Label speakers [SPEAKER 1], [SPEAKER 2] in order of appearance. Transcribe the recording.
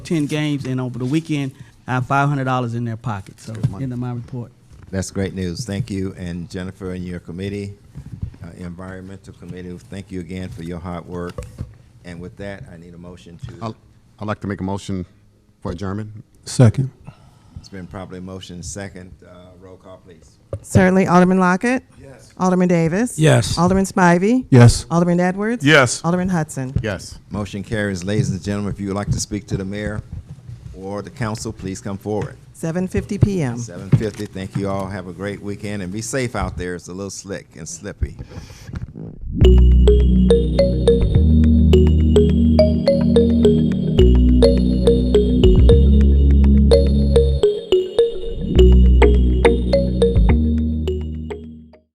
[SPEAKER 1] ten games, and over the weekend, I have five hundred dollars in their pocket. So,
[SPEAKER 2] Good money.
[SPEAKER 1] end of my report.
[SPEAKER 2] That's great news. Thank you, and Jennifer and your committee, uh, Environmental Committee, thank you again for your hard work. And with that, I need a motion to,
[SPEAKER 3] I'll- I'd like to make a motion for adjournment.
[SPEAKER 4] Second.
[SPEAKER 2] it's been probably motion second. Uh, Roll call, please.
[SPEAKER 5] Certainly, Alderman Lockett. Yes. Alderman Davis.
[SPEAKER 4] Yes.
[SPEAKER 5] Alderman Spivey.
[SPEAKER 4] Yes.
[SPEAKER 5] Alderman Edwards.
[SPEAKER 6] Yes.
[SPEAKER 5] Alderman Hudson.
[SPEAKER 3] Yes.
[SPEAKER 2] Motion carries. Ladies and gentlemen, if you would like to speak to the mayor or the council, please come forward.
[SPEAKER 5] 7:50 p.m.
[SPEAKER 2] Seven fifty. Thank you all. Have a great weekend and be safe out there. It's a little slick and slippy.